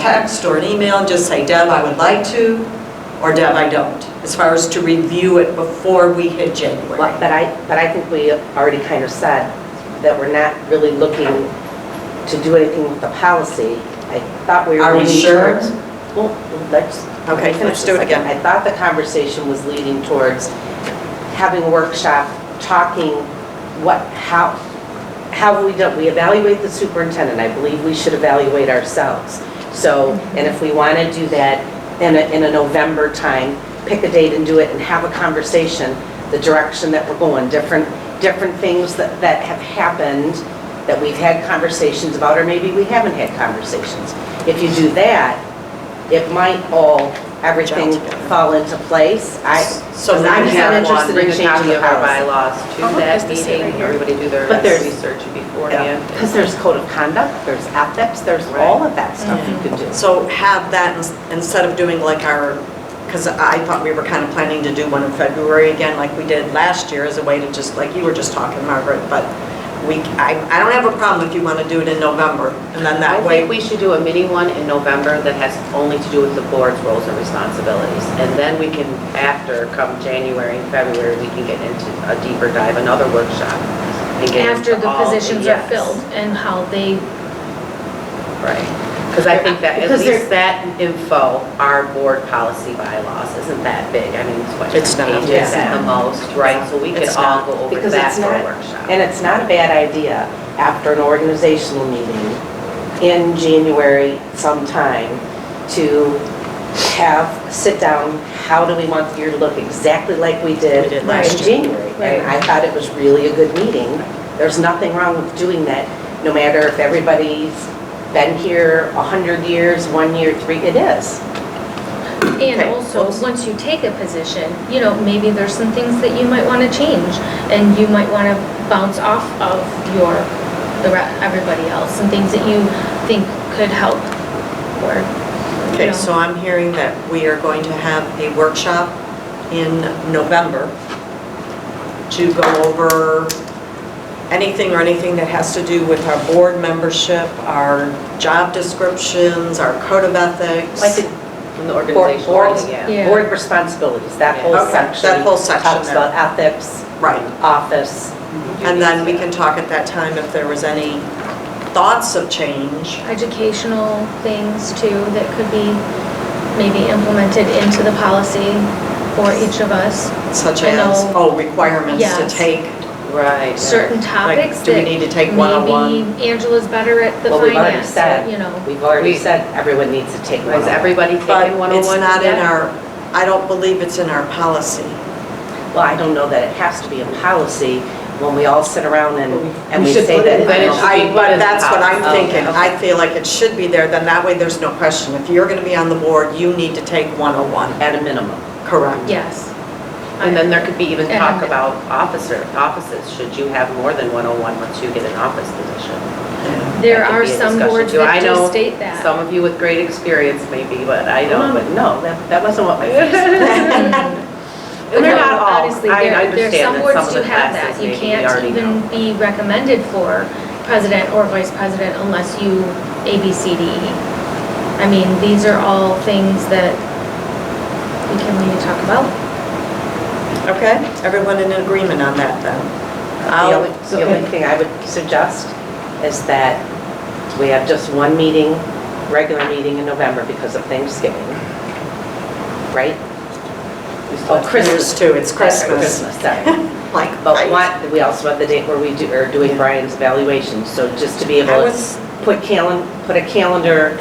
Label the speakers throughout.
Speaker 1: text or an email and just say, Deb, I would like to, or Deb, I don't, as far as to review it before we hit January.
Speaker 2: Well, But I, but I think we already kind of said that we're not really looking to do anything with the policy. I thought we were.
Speaker 1: Are we
Speaker 2: leaning
Speaker 1: sure?
Speaker 2: towards- Well, let's. let me
Speaker 1: Okay,
Speaker 2: finish
Speaker 1: let's
Speaker 2: this
Speaker 1: do it
Speaker 2: second.
Speaker 1: again.
Speaker 2: I thought the conversation was leading towards having a workshop, talking what, how, how have we done, we evaluate the superintendent, I believe we should evaluate ourselves. So, and if we want to do that in a, in a November time, pick a date and do it and have a conversation, the direction that we're going, different, different things that, that have happened, that we've had conversations about, or maybe we haven't had conversations. If you do that, it might all, everything
Speaker 1: together.
Speaker 2: fall into place. I,
Speaker 1: So
Speaker 2: I'm
Speaker 1: we
Speaker 2: not
Speaker 1: can have
Speaker 2: interested in changing the policy.
Speaker 3: bylaws to
Speaker 4: Oh, look, there's
Speaker 3: that
Speaker 4: the state right
Speaker 3: meeting.
Speaker 4: here.
Speaker 3: Everybody do their
Speaker 2: But there's-
Speaker 3: research beforehand.
Speaker 2: Because there's code of conduct, there's ethics, there's all of that stuff you can do.
Speaker 1: So have that ins- instead of doing like our, because I thought we were kind of planning to do one in February again, like we did last year, as a way to just, like you were just talking, Margaret, but we, I, I don't have a problem if you want to do it in November, and then
Speaker 3: I
Speaker 1: that way,
Speaker 3: think we should do a mini one in November that has only to do with the board's roles and responsibilities. And then we can, after, come January and February, we can get into a deeper dive, another workshop. and get into
Speaker 4: After the
Speaker 3: all
Speaker 4: positions are
Speaker 3: yes.
Speaker 4: filled and how they,
Speaker 3: Right, because I think that, at
Speaker 2: Because they're-
Speaker 3: least that info, our board policy bylaws, isn't that big? I mean, it's what,
Speaker 1: It's
Speaker 3: pages
Speaker 1: not,
Speaker 2: yeah.
Speaker 3: at the most, right? So we could
Speaker 1: It's
Speaker 3: all
Speaker 1: not.
Speaker 3: go over
Speaker 2: Because
Speaker 3: that
Speaker 2: it's
Speaker 3: for a
Speaker 2: not-
Speaker 3: workshop.
Speaker 2: And it's not a bad idea, after an organizational meeting in January sometime, to have, sit down, how do we want the year to look, exactly like we
Speaker 1: We
Speaker 2: did
Speaker 1: did
Speaker 2: in
Speaker 1: last year.
Speaker 2: January. And I thought it was really a good meeting. There's nothing wrong with doing that, no matter if everybody's been here 100 years, one year, three, it is.
Speaker 4: and
Speaker 2: Okay,
Speaker 4: also,
Speaker 2: oops.
Speaker 4: once you take a position, you know, maybe there's some things that you might want to change, and you might want to bounce off of your, the, re- everybody else, and things that you think could help, or, you
Speaker 1: okay, so
Speaker 4: know.
Speaker 1: I'm hearing that we are going to have a workshop in November to go over anything or anything that has to do with our board membership, our job descriptions, our code of ethics.
Speaker 2: Like a
Speaker 3: From the organization,
Speaker 2: boards-
Speaker 3: yeah.
Speaker 4: Yeah.
Speaker 2: board responsibilities, that whole
Speaker 3: Yeah.
Speaker 1: Okay, that
Speaker 2: section.
Speaker 1: whole section
Speaker 2: Talks
Speaker 1: there.
Speaker 2: about ethics,
Speaker 1: Right.
Speaker 2: office.
Speaker 1: And then we can talk at that time if there was any thoughts of change.
Speaker 4: educational things too, that could be maybe implemented into the policy for each of us.
Speaker 1: Such
Speaker 4: I
Speaker 1: as,
Speaker 4: know.
Speaker 1: oh, requirements to
Speaker 4: Yes.
Speaker 1: take.
Speaker 3: Right. yeah.
Speaker 4: Certain topics
Speaker 1: do we
Speaker 4: that
Speaker 1: need to take one-on-one?
Speaker 4: Maybe Angela's better at the
Speaker 2: Well, we've already
Speaker 4: finance,
Speaker 2: said,
Speaker 4: you know.
Speaker 2: we've already
Speaker 3: We-
Speaker 2: said everyone needs to take one.
Speaker 3: Was everybody
Speaker 1: But
Speaker 3: taking 101?
Speaker 1: it's not in
Speaker 3: today?
Speaker 1: our, I don't believe it's in our policy.
Speaker 2: Well, I don't know that it has to be a policy when we all sit around and, and
Speaker 3: We
Speaker 2: we
Speaker 3: should
Speaker 2: say
Speaker 3: put it in
Speaker 2: that.
Speaker 3: there. should
Speaker 1: I,
Speaker 3: be put
Speaker 1: but
Speaker 3: in the
Speaker 1: that's what I'm
Speaker 3: policy.
Speaker 1: thinking. I feel like it should be there, then that way there's no question. If you're gonna be on the board, you need to take 101.
Speaker 2: At a minimum.
Speaker 1: Correct.
Speaker 4: Yes.
Speaker 3: And then there could be even
Speaker 4: And
Speaker 3: talk
Speaker 4: then-
Speaker 3: about officer, offices, should you have more than 101 once you get an office position?
Speaker 4: There
Speaker 3: That could
Speaker 4: are
Speaker 3: be a
Speaker 4: some
Speaker 3: discussion
Speaker 4: boards
Speaker 3: too. I
Speaker 4: that do
Speaker 3: know
Speaker 4: state that.
Speaker 3: Some of you with great experience maybe, but I don't, but
Speaker 2: No, that, that wasn't what my face
Speaker 4: But
Speaker 3: And they're
Speaker 4: no,
Speaker 3: not all,
Speaker 4: honestly,
Speaker 3: I
Speaker 4: there- there-
Speaker 3: understand that some of the
Speaker 4: Some boards
Speaker 3: classes
Speaker 4: do
Speaker 3: maybe we
Speaker 4: have that.
Speaker 3: already
Speaker 4: You can't even be recommended for president or vice president unless you A, B, C, D, E. I mean, these are all things that we can maybe talk about.
Speaker 1: Okay, everyone in agreement on that then?
Speaker 2: The only, the only thing I would suggest is that we have just one meeting, regular meeting in November because of Thanksgiving. Right? Oh,
Speaker 1: Christmas too, it's Christmas.
Speaker 2: Christmas, sorry.
Speaker 1: Like,
Speaker 2: But what, we also have the date where we do, are doing Brian's evaluation, so just to be
Speaker 1: I
Speaker 2: able
Speaker 1: was-
Speaker 2: to put calen, put a calendar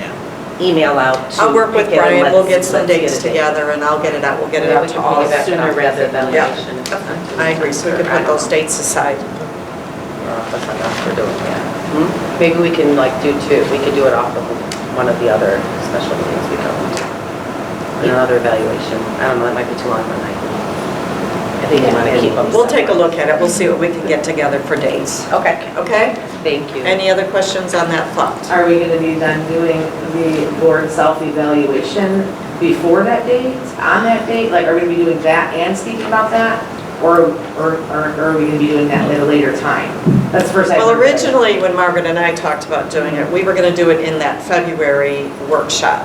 Speaker 2: email out to.
Speaker 1: I'll work with
Speaker 2: pick it and
Speaker 1: Brian, we'll get
Speaker 2: let's-
Speaker 1: some
Speaker 2: let's get
Speaker 1: dates
Speaker 2: a date.
Speaker 1: together and I'll get it out, we'll get it
Speaker 3: Maybe
Speaker 1: out
Speaker 3: we
Speaker 1: to
Speaker 3: can
Speaker 1: all.
Speaker 3: bring
Speaker 1: of
Speaker 3: it back
Speaker 1: us.
Speaker 3: sooner rather than
Speaker 1: Yeah.
Speaker 3: later. It's not too
Speaker 1: I agree, so we could
Speaker 3: I
Speaker 1: put
Speaker 3: don't
Speaker 1: those dates aside.
Speaker 3: know if that's enough for doing that. Maybe we can like do two, we could do it off of one of the other special meetings we go to. Another evaluation, I don't know, that might be too long for night.
Speaker 2: I think you want to keep them.
Speaker 1: We'll take a look at it, we'll see what we can get together for dates,
Speaker 2: Okay.
Speaker 1: okay?
Speaker 3: Thank you.
Speaker 1: Any other questions on that thought?
Speaker 5: Are we gonna be then doing the board self-evaluation before that date, on that date? Like, are we gonna be doing that and speaking about that? Or, or, or or are we gonna be doing that at a later time? That's the first I.
Speaker 1: Well, originally, when Margaret and I talked about doing it, we were going to do it in that February workshop.